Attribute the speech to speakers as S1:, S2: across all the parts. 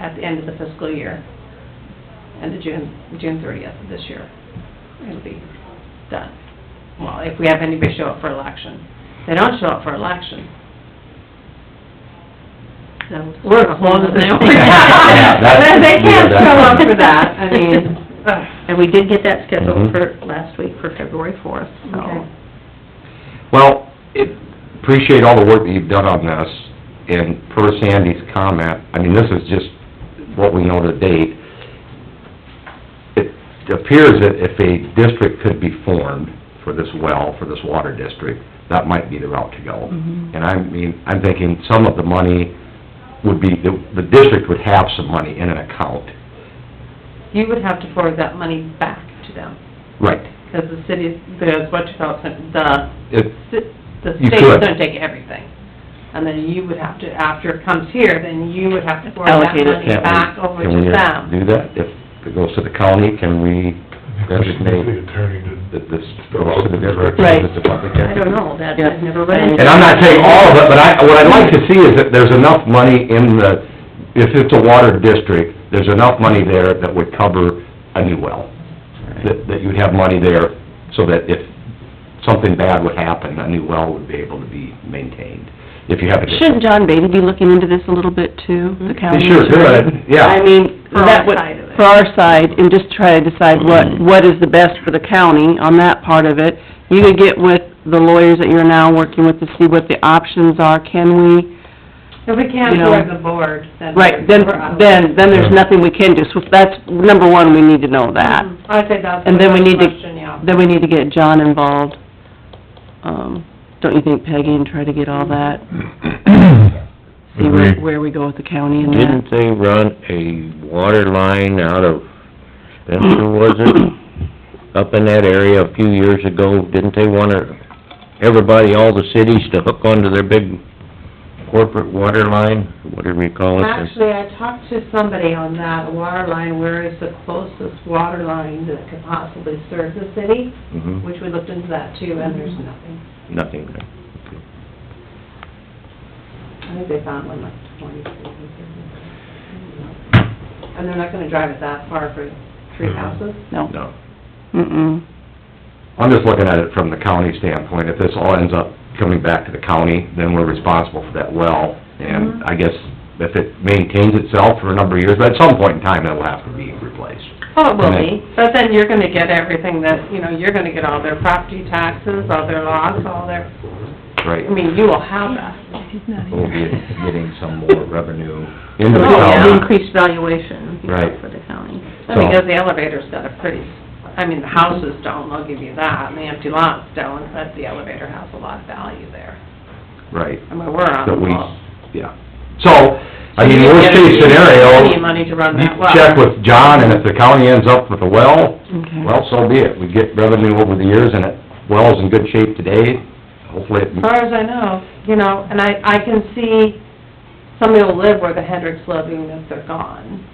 S1: at the end of the fiscal year, end of June, June thirtieth of this year. It'll be done. Well, if we have anybody show up for election. If They don't show up for election. Then we're as long as they only.
S2: Yeah, that's-
S1: Then They can't
S2: yeah,
S1: show
S2: that's-
S1: up for that, I mean, ugh.
S3: And we did get that scheduled
S2: Mhm.
S3: for last week for February fourth, so.
S1: Okay.
S2: Well, it- appreciate all the work that you've done on this, and per Sandy's comment, I mean, this is just what we know to date. It appears that if a district could be formed for this well, for this water district, that might be the route to go.
S1: Mm-hmm.
S3: Mhm.
S2: And I mean, I'm thinking some of the money would be, the the district would have some money in an account.
S1: You would have to forward that money back to them,
S2: Right.
S1: because the city, there's what you call, it, the,
S2: It-
S1: ci- the
S2: You
S1: state's
S2: could.
S1: gonna take everything. And then you would have to, after it comes here, then you would have to forward that
S3: Allocate it.
S1: money
S2: can't we-
S1: back over
S2: can we
S1: to them.
S2: Do that? If it goes to the county, can we designate?
S4: The attorney to,
S2: that this goes to the district,
S3: Right.
S2: that the public
S3: I
S2: entity.
S3: don't know, that,
S1: Yeah.
S3: I've never read it.
S2: And I'm not saying all of it, but I, what I'd like to see is that there's enough money in the, if it's a water district, there's enough money there that would cover a new well. That, that you'd have money there so that if something bad would happen, a new well would be able to be maintained, if you have a
S5: Shouldn't
S2: district.
S5: John Beatty be looking into this a little bit too, the
S3: Mm-hmm.
S5: county?
S2: Sure,
S5: attorney?
S2: good, yeah.
S5: I mean,
S1: For our
S5: that would,
S1: side of it.
S5: for our side, and just try to decide what,
S2: Mm-hmm.
S5: what is the best for the county on that part of it. You could get with the lawyers that you're now working with to see what the options are, can we?
S1: If we can't
S5: You know.
S1: afford the board, then.
S5: Right, then,
S1: we're out.
S5: then, then there's nothing we can do, so that's, number one, we need to know
S3: Mm-hmm.
S5: that.
S1: Mhm. I'd say that's.
S5: And then we
S1: the
S5: need to-
S1: Question, yeah.
S5: Then we need to get John involved, um, don't you think Peggy, and try to get all that? See where,
S6: Agreed.
S5: where we go with the county and that.
S6: Didn't they run a water line out of Spencer, was it? Up in that area a few years ago, didn't they want everybody, all the cities to hook onto their big corporate water line, whatever you call it?
S1: Actually, I talked to somebody on that, a water line, where is the closest water line that could possibly serve the city?
S6: Mhm,
S1: Which we looked into that too, and there's nothing.
S6: Nothing there.
S1: I think they found one like twenty, thirty. And they're not gonna drive it that far for three
S2: Mm-hmm.
S1: houses?
S5: No,
S6: No.
S5: mm-mm.
S2: I'm just looking at it from the county standpoint, if this all ends up coming back to the county, then we're responsible for that well, and
S1: Mm-hmm.
S2: I guess if it maintains itself for a number of years, but at some point in time, it'll have to be replaced.
S1: Oh, it will
S2: Right.
S1: be, but then you're gonna get everything that, you know, you're gonna get all their property taxes, all their lots, all their,
S2: Right.
S1: I mean, you will have that.
S2: We'll be getting some more revenue into the
S3: Oh, yeah, the
S2: county.
S3: increased valuation you know,
S2: Right.
S3: for the county.
S2: So-
S1: Because the elevator's got a pretty, I mean, the houses don't, I'll give you that, and the empty lots don't, but the elevator has a lot of value there.
S2: Right,
S1: I mean, we're on the
S2: that we,
S1: wall.
S2: yeah. So, I mean,
S1: You
S2: worst
S1: get
S2: case
S1: Plenty of
S2: scenario,
S1: money to run
S2: you
S1: that well.
S2: check with John, and if the county ends up with a well,
S5: Okay.
S2: well, so be it. We get revenue over the years, and it, well's in good shape today, hopefully it
S1: As far as I know, you know, and I, I can see somebody will live where the Hendricks live even if they're gone.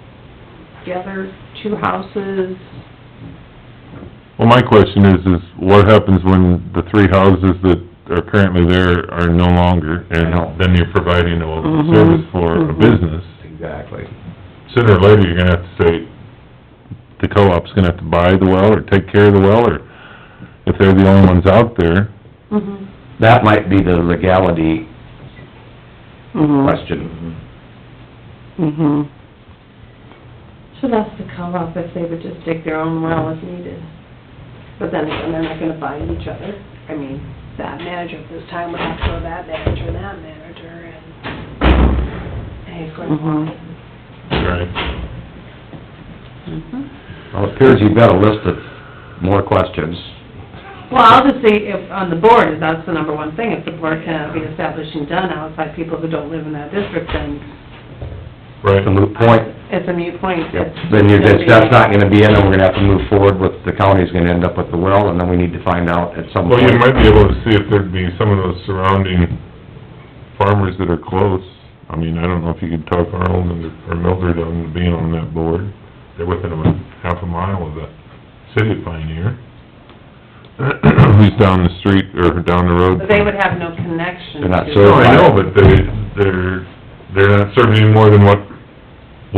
S1: The other two houses,
S6: Well, my question is, is what happens when the three houses that are currently there are no longer?
S2: know.
S6: And then you're providing a
S5: Mhm,
S6: service for a
S5: mhm.
S6: business.
S2: Exactly.
S6: sooner or later, you're gonna have to say, the co-op's gonna have to buy the well, or take care of the well, or if they're the only ones out there.
S2: That might be the legality
S5: Mm-hmm,
S2: question.
S5: mm-hmm.
S1: should ask the co-op if they would just dig their own well if needed. But then again, they're not gonna find each other. I mean, that manager at this time would have to go that manager and that manager and pay for it.
S5: Mhm.
S6: Right.
S3: Mm-hmm.
S2: Well, it appears you've got a list of more questions.
S1: Well, I'll just say, if, on the board, if that's the number one thing, if the board cannot be established and done outside people who don't live in that district, then
S2: It's a
S6: Right.
S2: moot point.
S1: it's a moot point. It's-
S2: Then you're,
S1: it's gonna
S2: that's that's
S1: be-
S2: not gonna be in, and we're gonna have to move forward with, the county's gonna end up with the well, and then we need to find out at some
S6: Well, you
S2: point.
S6: might be able to see if there'd be some of those surrounding farmers that are close. I mean, I don't know if you could talk Arnold and- or Mildred on being on that board. They're within a half a mile of the city of Pioneer. Who's down the street, or down the road.
S1: But They would have no connection
S2: They're not
S1: to-
S2: served.
S6: No, I know, but they, they're, they're not serving any more than what